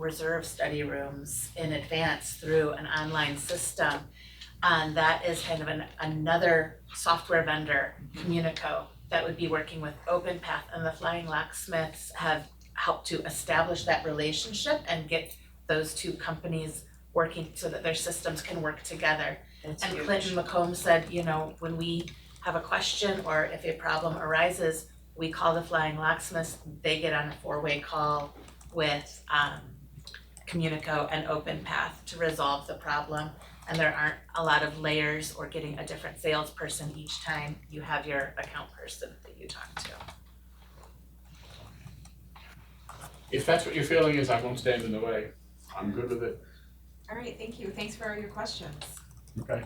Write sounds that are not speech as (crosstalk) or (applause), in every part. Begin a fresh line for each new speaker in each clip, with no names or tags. reserve study rooms in advance through an online system. And that is kind of an, another software vendor, Communico, that would be working with OpenPath and the Flying Locksmiths have helped to establish that relationship and get those two companies working so that their systems can work together.
That's
And
huge.
Clinton McComb said, you know, when we have a question or if a problem arises, we call the Flying Locksmiths, they get on a four-way call with um Communico and OpenPath to resolve the problem. And there aren't a lot of layers or getting a different salesperson each time you have your account person that you talk to.
If that's what your feeling is, I won't stand in the way. I'm good with it.
All right, thank you. Thanks for all your questions.
Okay.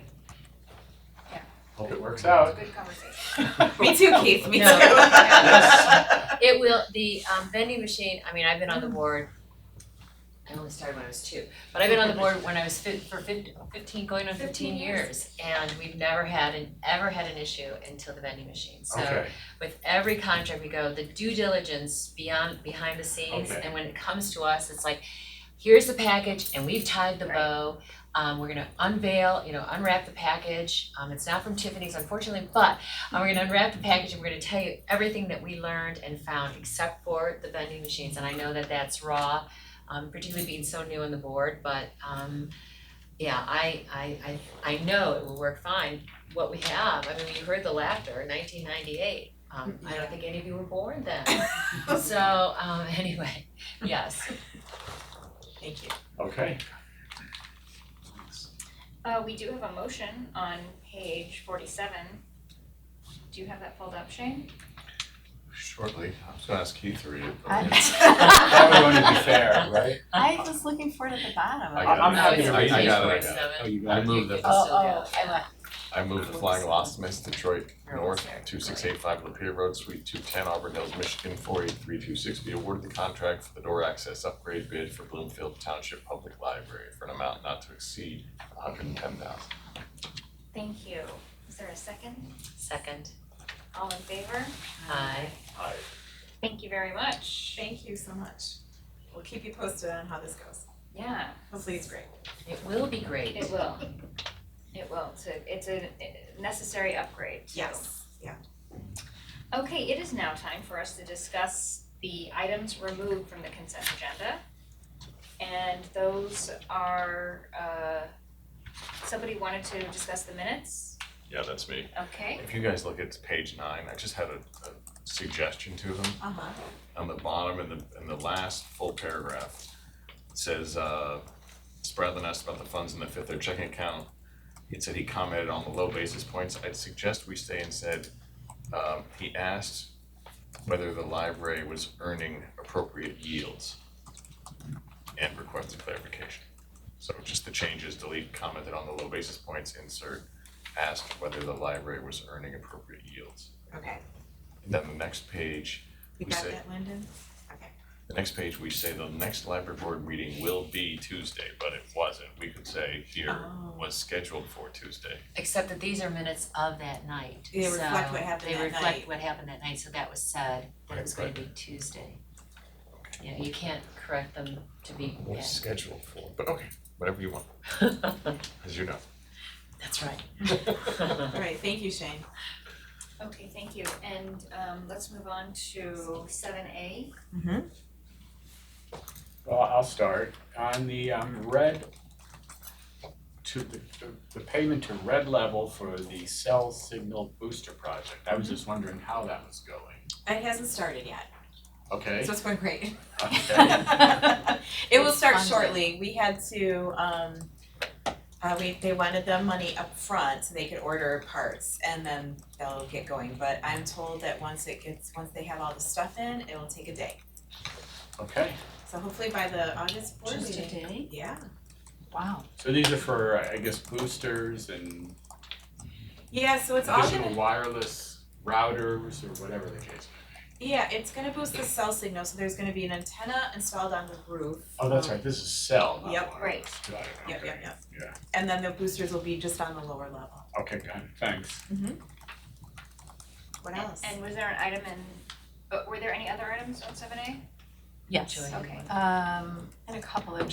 Yeah.
Hope it works
It's
out.
a good conversation. (laughs)
Me
Me too, Keith, me too.
No. It will, the um vending machine, I mean, I've been on the board, I only started when I was two, but I've been on the board when I was fit for fif- fifteen, going on fifteen
15
years. And we've never had an, ever had an issue until the vending machine, so
Okay,
with every contract we go, the due diligence beyond, behind the scenes,
Okay.
and when it comes to us, it's like, here's the package and we've tied the
Right.
bow, um we're gonna unveil, you know, unwrap the package, um it's not from Tiffany's unfortunately, but um, we're gonna unwrap the package and we're gonna tell you everything that we learned and found except for the vending machines, and I know that that's raw, um particularly being so new on the board, but um yeah, I I I I know it will work fine, what we have, I mean, you heard the laughter, nineteen ninety-eight, um I don't think any of you were born
(laughs)
then. So um (laughs) anyway, yes,
Thank you.
okay.
Uh, we do have a motion on page forty-seven. Do you have that pulled up, Shane?
Shortly, I was gonna ask Keith to read it, but
Probably want to be fair, right?
I was looking for it at the bottom.
(laughs) I got it.
I'm happy to
I- I
read.
got it, I got it.
Seven.
you
I move
You
the,
can still go.
I move the Flying Locksmiths Detroit
You're almost
North,
there.
two six eight five Lapeer Road, Suite two ten, Auburn Hills, Michigan, four eight three two six, be awarded the contract for the door access upgrade bid for Bloomfield Township Public Library for an amount not to exceed hundred and ten thousand.
Thank you. Is there a second?
Second,
All in favor?
aye.
Aye.
Thank you very much.
Thank you so much. We'll keep you posted on how this goes.
Yeah,
Hopefully it's great.
It will be great.
it will. It will. It's a, it's a necessary upgrade, so.
Yes, yeah.
Okay, it is now time for us to discuss the items removed from the consent agenda. And those are, uh, somebody wanted to discuss the minutes?
Yeah, that's me.
Okay,
If you guys look at page nine, I just had a, a suggestion to them.
Uh-huh.
on the bottom in the, in the last full paragraph, it says, uh, Spradlin asked about the funds in the fifth or checking account. He said he commented on the low basis points. I'd suggest we stay and said, um, he asked whether the library was earning appropriate yields and requested clarification. So just the changes, delete commented on the low basis points, insert asked whether the library was earning appropriate yields.
Okay.
And then the next page,
You
We
got
say-
that, Lyndon?
the next page, we say the next library board meeting will be Tuesday, but it wasn't. We could say here
Oh.
was scheduled for Tuesday.
Except that these are minutes of that night,
They
so
reflect what happened
they
that
reflect
night.
what happened that night, so that was said, that it was gonna
Right,
be Tuesday. You know, you can't correct them to be,
Was
(laughs)
scheduled for, but okay, whatever you want,
yeah.
as you know.
(laughs)
That's right.
All right, thank you, Shane.
okay, thank you. And, um, let's move on to seven A.
Well, I'll start. On the um red to the the- the payment to red level for the cell signal booster project, I was just wondering how that was going.
It hasn't started yet,
Okay,
so it's going (laughs) great.
(laughs) okay,
It will start
Funded.
shortly. We had to, um, uh, we, they wanted the money up front so they could order parts and then they'll get going. But I'm told that once it gets, once they have all the stuff in, it will take a day.
okay.
So hopefully by the August board meeting.
day?
Yeah,
Wow.
So these are for, I guess, boosters and
yeah, so it's all
additional
gonna,
wireless routers or whatever the case.
yeah, it's gonna boost the cell signal, so there's gonna be an antenna installed on the roof.
Oh, that's right, this is cell, not
Uh-huh. Yep.
wireless. Got it,
Yep,
okay.
yep, yep.
Yeah.
And then the boosters will be just on the lower level.
Okay, got it, thanks.
What else?
uh, And was there an item in, but were there any other items on seven A?
Yes.
Julia?
Okay.
Um, and a couple of